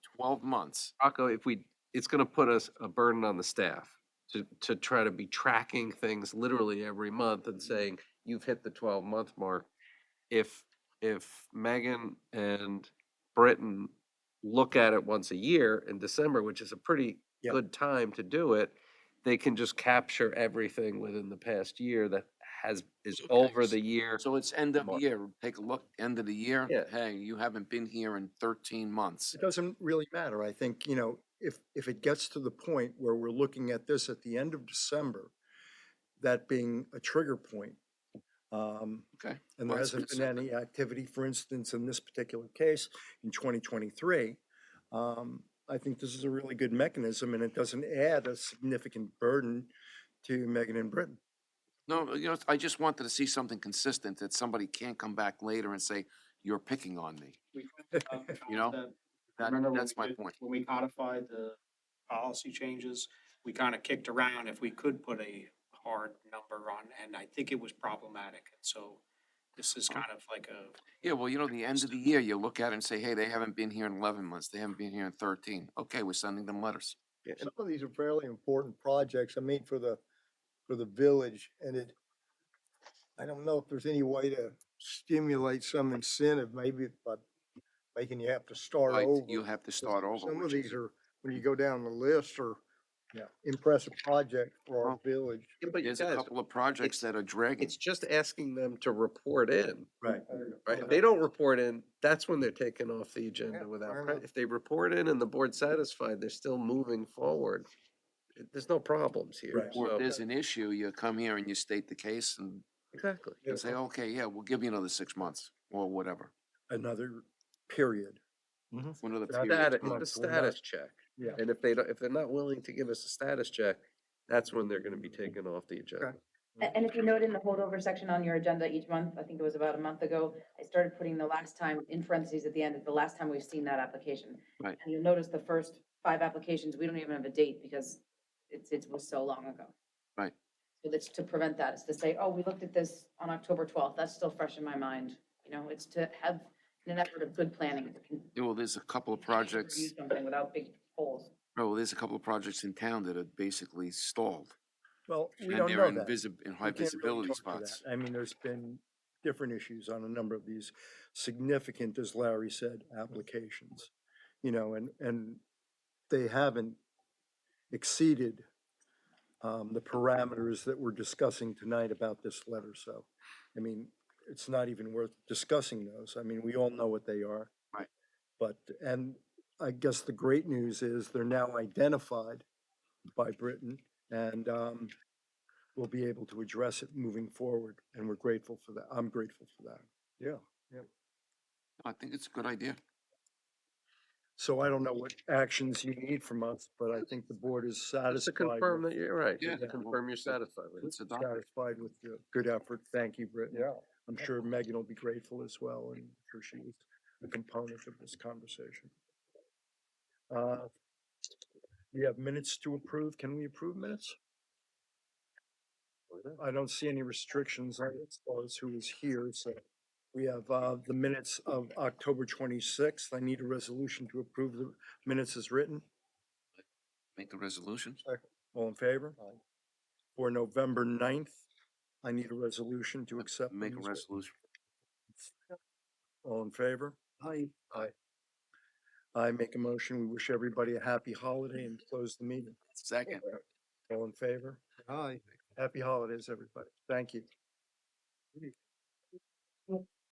twelve months, Rocco, if we, it's gonna put us a burden on the staff to, to try to be tracking things literally every month and saying, you've hit the twelve month mark. If, if Megan and Britton look at it once a year in December, which is a pretty Yep. good time to do it, they can just capture everything within the past year that has, is Okay, over s- the year. so it's end of Mark. year, take a look, end of the year. Yeah. Hey, you haven't been here in thirteen months. It doesn't really matter. I think, you know, if, if it gets to the point where we're looking at this at the end of December, that being a trigger point. um, Okay, And well, there that's hasn't been consistent. any activity, for instance, in this particular case, in 2023. um, I think this is a really good mechanism and it doesn't add a significant burden to Megan and Britton. No, you know, I just wanted to see something consistent that somebody can't come back later and say, you're picking on me. We tried to come to You know, concept. that- Remember when that's we my did- point. When we codified the policy changes, we kind of kicked around if we could put a hard number on, and I think it was problematic. And so this is Uh-huh. kind of like a, Yeah, well, you know, the end of the year, you look at it and say, hey, they haven't been here in eleven months, they haven't been here in thirteen. Okay, we're sending them letters. Yeah, some of these are fairly important projects, I mean, for the, for the village, and it, I don't know if there's any way to stimulate some incentive, maybe by making you have to start Right, over. you have to 'cause start over. Some of which is- these are, when you go down the list, are Yeah. impressive projects for our Well, village. But There's a couple of projects that are dragging. it's just asking them to report in. Right. Right, if they don't report in, that's when they're taken off the agenda Yeah, without, fair pre- enough. if they report in and the board's satisfied, they're still moving forward. It- There's no problems here, Right. Or if so, there's an issue, you come here and you state the case and exactly. and say, okay, yeah, we'll give you another six months or whatever. Another period. Another That- period. Status, of time. the months, we're not- status check, Yeah. and if they don't, if they're not willing to give us a status check, that's when they're gonna be taken off the agenda. A- And if you note in the holdover section on your agenda each month, I think it was about a month ago, I started putting the last time in parentheses at the end, the last time we've seen that application. Right. And you'll notice the first five applications, we don't even have a date because it's, it was so long ago. Right. So that's to prevent that, it's to say, oh, we looked at this on October twelfth, that's still fresh in my mind, you know, it's to have an effort of good planning. Yeah, Oh, Well, there's a couple of projects, Review something without big holes. oh, well, there's a couple of projects in town that are basically stalled. Well, we and don't they're know in that. visi- In high We can't really visibility talk to that. spots. I mean, there's been different issues on a number of these significant, as Larry said, applications. You know, and, and they haven't exceeded um, the parameters that we're discussing tonight about this letter, so. I mean, it's not even worth discussing those. I mean, we all know what they are. Right. But, and I guess the great news is they're now identified by Britain and um, we'll be able to address it moving forward, and we're grateful for that. I'm grateful for that. Yeah. I think it's a good idea. So I don't know what actions you need from us, but I think the board is Just to satisfied, confirm with- that you're right, Yeah, just to well, confirm you're satisfied with it. It's a doc- satisfied with the good effort. Thank you, Britton. Yeah. I'm sure Megan will be grateful as well, and I'm sure she was a component of this conversation. Uh, We have minutes to approve. Can we approve minutes? I don't see any restrictions on as far as who is here, so we have uh, the minutes of October 26th. I need a resolution to approve the minutes as written. Make a resolution. All in favor? For November 9th, I need a resolution to accept. Make a them as written. resolution. All in favor? Aye. Aye. I make a motion. We wish everybody a happy holiday and close the meeting. Second. All in favor? Aye. Happy holidays, everybody. Thank you.